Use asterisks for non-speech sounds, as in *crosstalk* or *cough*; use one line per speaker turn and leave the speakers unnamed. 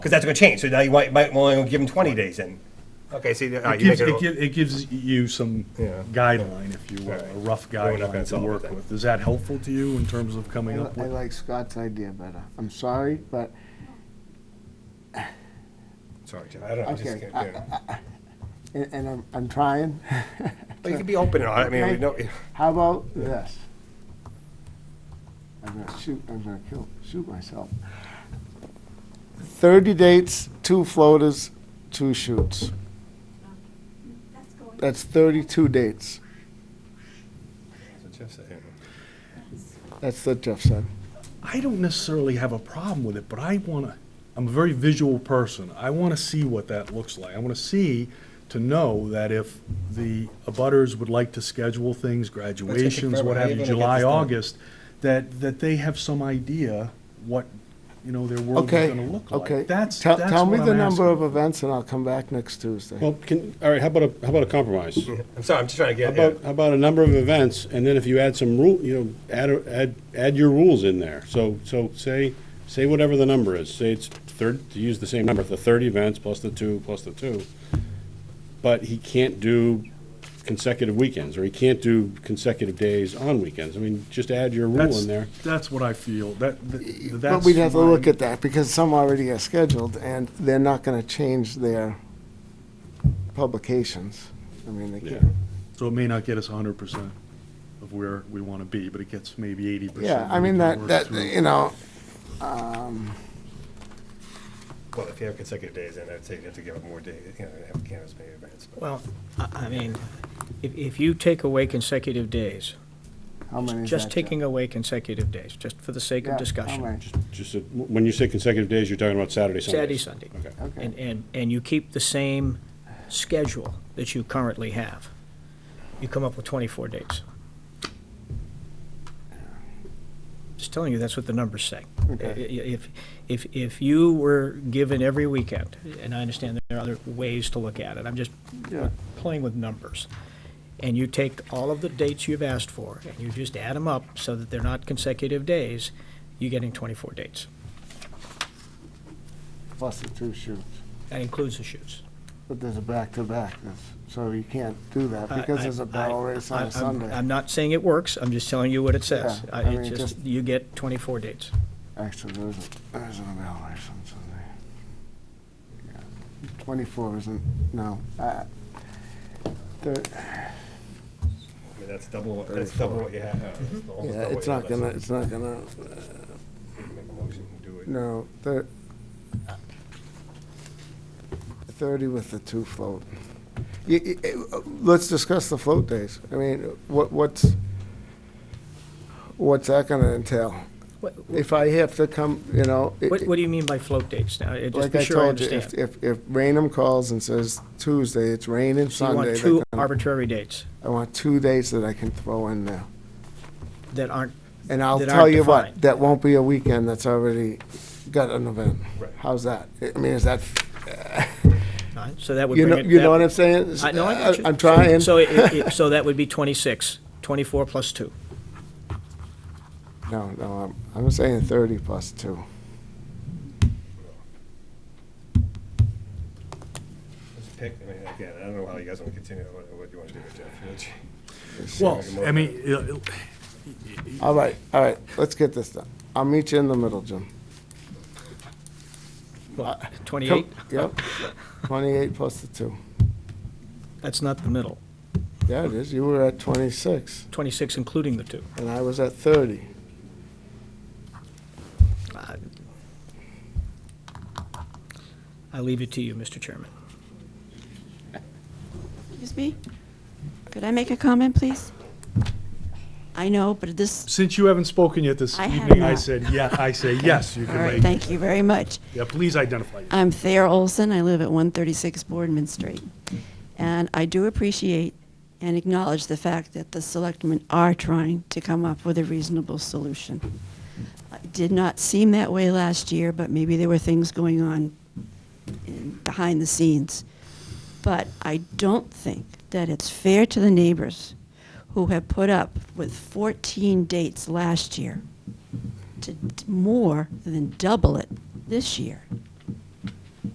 Because that's going to change. So now you might, might want to give them 20 days in. Okay, see, all right, Uh,
It
you make
gives,
it.
it
a-
gives, it gives you some
Yeah.
guideline, if you will, a
Right.
rough
We're not gonna
guideline to
solve
work
it.
with. Is that helpful to you in terms of coming up
I
with?
like Scott's idea better. I'm sorry, but,
Sorry, Jim, I don't know. I just
Okay,
can't- yeah.
and, and I'm, I'm
*laughs*
trying.
But you can be open, I mean, we
Okay.
know,
*laughs* How about this? I'm gonna shoot, I'm gonna kill, shoot myself. Thirty dates, two floaters, two shoots.
That's going
That's thirty-two dates.
that's what Jeff said, you know.
That's what Jeff said.
I don't necessarily have a problem with it, but I wanna, I'm a very visual person. I wanna see what that looks like. I wanna see to know that if the abutters would like to schedule things, graduations,
forever.
what
How
have
you
you,
gonna get this
July,
done?
August, that, that they have some idea what, you know, their world is
Okay,
gonna look like.
okay.
That's,
Tell-
that's
Tell me
what
the
I'm
number
asking.
of events and I'll come back next Tuesday.
Well, can, all right, how about a, how about a compromise? How
I'm sorry, I'm just trying to get, yeah.
about, how about a number of events, and then if you add some rule, you know, add, a- add, add your rules in there. So, so say, say whatever the number is, say it's third, to use the same number, the thirty events plus the two, plus the two. But he can't do consecutive weekends, or he can't do consecutive days on weekends. I mean, just add your rule
That's-
in there.
That's what I feel, that, th- that's.
But we'd have to look
my-
at that, because some already are scheduled, and they're not gonna change their publications. I mean, they
Yeah.
can't.
So it may not get us hundred percent of where we wanna be, but it gets maybe eighty percent.
Yeah, I mean, that, that, you know, um,
well, if you have consecutive days, then I'd say you have to give up more days, you know, have canvas maybe events. but-
Well, I I mean, if, if you take away consecutive days,
how many is that?
just
Jeff?
taking away consecutive days, just for the sake
Yeah,
of
how
discussion,
many?
Just, a- when you say consecutive days, you're talking about Saturday, Sunday.
Saturday, Sunday.
Okay.
And,
Okay,
and, and you keep the same schedule that you currently have, you come up with twenty-four dates. Just telling you, that's what the numbers say. I- i-
okay.
If, if, if you were given every weekend, and I understand there are other ways to look at it, I'm just
Yeah.
playing with numbers. And you take all of the dates you've asked for, and you just add them up so that they're not consecutive days, you're getting 24 dates.
Plus the two shoots,
That includes the shoots.
but there's a back-to-back, that's- so you can't do that,
I-
because
I-
there's a barrel
I-
race on
I-
a
I'm-
Sunday,
I'm not saying it works, I'm just telling you what it says.
Yeah,
I-
I mean,
It's just,
just-
you get 24 dates.
actually, there isn't, there isn't a barrel race on Sunday. Yeah. Twenty-four isn't, no, uh, I, the,
I mean, that's double, what- that's double what you have. uh, it's
Oh,
almost
Mm-hmm. Yeah,
double
it's
what
not
you
gonna,
have.
it's not gonna,
Make a motion and do it.
no, thir- thirty with the two float. Y- y- uh, Let's discuss the float days. I mean, what, what's, what's that gonna entail?
What,
If I have to come, you know, it-
what what do you mean by float dates now? Uh, Just
like
be
I
sure I
told you, if,
understand.
if, if Rainham calls and says Tuesday, it's raining
So you
Sunday.
want
they
two
can-
arbitrary dates
I want two days that I can throw in there.
that aren't,
And I'll
that
tell
aren't
you what,
defined.
that won't be a weekend that's already got an event.
Right.
How's that? I mean, is that,
all right, so that would
you
bring
know,
it.
you
that-
know what I'm saying?
I know, I got you.
I'm trying.
So,
*laughs*
it- it- so that would be 26, 24 plus 2.
No, no, I'm, I'm saying thirty plus two.
Just pick, I mean, again, I don't know how you guys want to continue, what what you want to do with Jeff. you know, gee. Make
Well,
a
I mean, uh,
All right, all right, let's get this done. I'll meet you in the middle, Jim.
What,
Uh, Come-
28?
Yep, twenty-eight plus the two.
That's not the middle.
Yeah, it is. You were at twenty-six
26 including the two.
and I was at thirty.
I- I leave it to you, Mr. Chairman.
Excuse me? Could I make a comment, please? I know, but this,
since you haven't spoken yet this
I have
evening, I
not.
said, yeah, I say, yes, you
all
can
right,
make. it.
thank you very much.
Yeah, please identify. yourself.
I'm Thayer Olson. I live at 136 Boardman Street. And I do appreciate and acknowledge the fact that the selectmen are trying to come up with a reasonable solution. It did not seem that way last year, but maybe there were things going on in- behind the scenes. But I don't think that it's fair to the neighbors who have put up with 14 dates last year to d- more than double it this year.